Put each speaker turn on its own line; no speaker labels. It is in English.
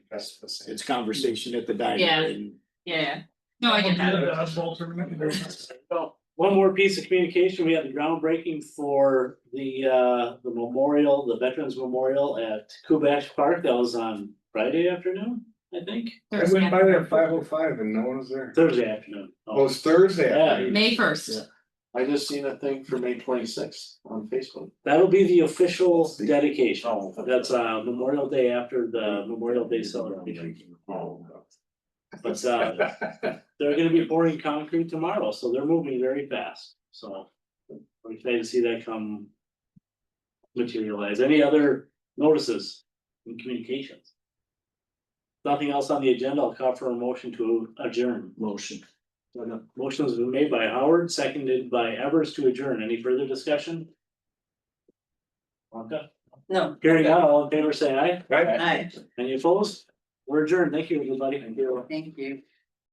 That's the same.
It's conversation at the dining.
Yeah.
room.
yeah, no, I get that.
Well, one more piece of communication, we had the groundbreaking for the uh, the memorial, the Veterans Memorial at Kubash Park, that was on Friday afternoon, I think,
I
Thursday.
went by there at five oh five and no one was there.
Thursday afternoon.
Oh, it's Thursday.
Yeah.
afternoon.
May first,
I just seen a thing for May twenty sixth on Facebook.
That'll be the official dedication, that's uh Memorial Day after the Memorial Day celebration,
Oh,
but uh they're gonna be pouring concrete tomorrow, so they're moving very fast, so. We're excited to see that come. Materialize, any other notices and communications? Nothing else on the agenda, I'll call for a motion to adjourn.
Motion.
Motion has been made by Howard, seconded by Evers to adjourn, any further discussion? Wonka?
no,
Hearing none, all in favor, say aye,
Right?
aye,
any opposed? We're adjourned, thank you, everybody, thank you.
thank you.